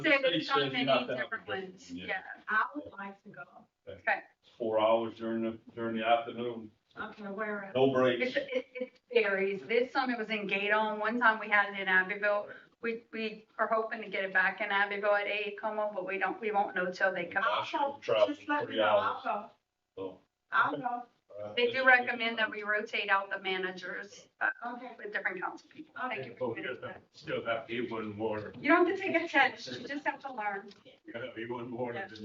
said city it's not says many not that different much. ones, Yeah. yeah. I would like to go. Four hours during the, during the afternoon, Okay, where? no breaks. It's, it, it varies. This summer was in Gato, and one time we had it in Abbeville. We, we are hoping to get it back in Abbeville at AECOMO, but we don't, we won't know till they come. I I'll should go. travel Just let me three know. I'll hours, go. so. uh, I'll go. all right. They do recommend that we rotate out the managers, uh, Okay. with different council people. Thank you Oh, for we committing just that. have- Still have to eat one more, You don't have to take a test, you just have to learn. you know, eat one more. Yeah.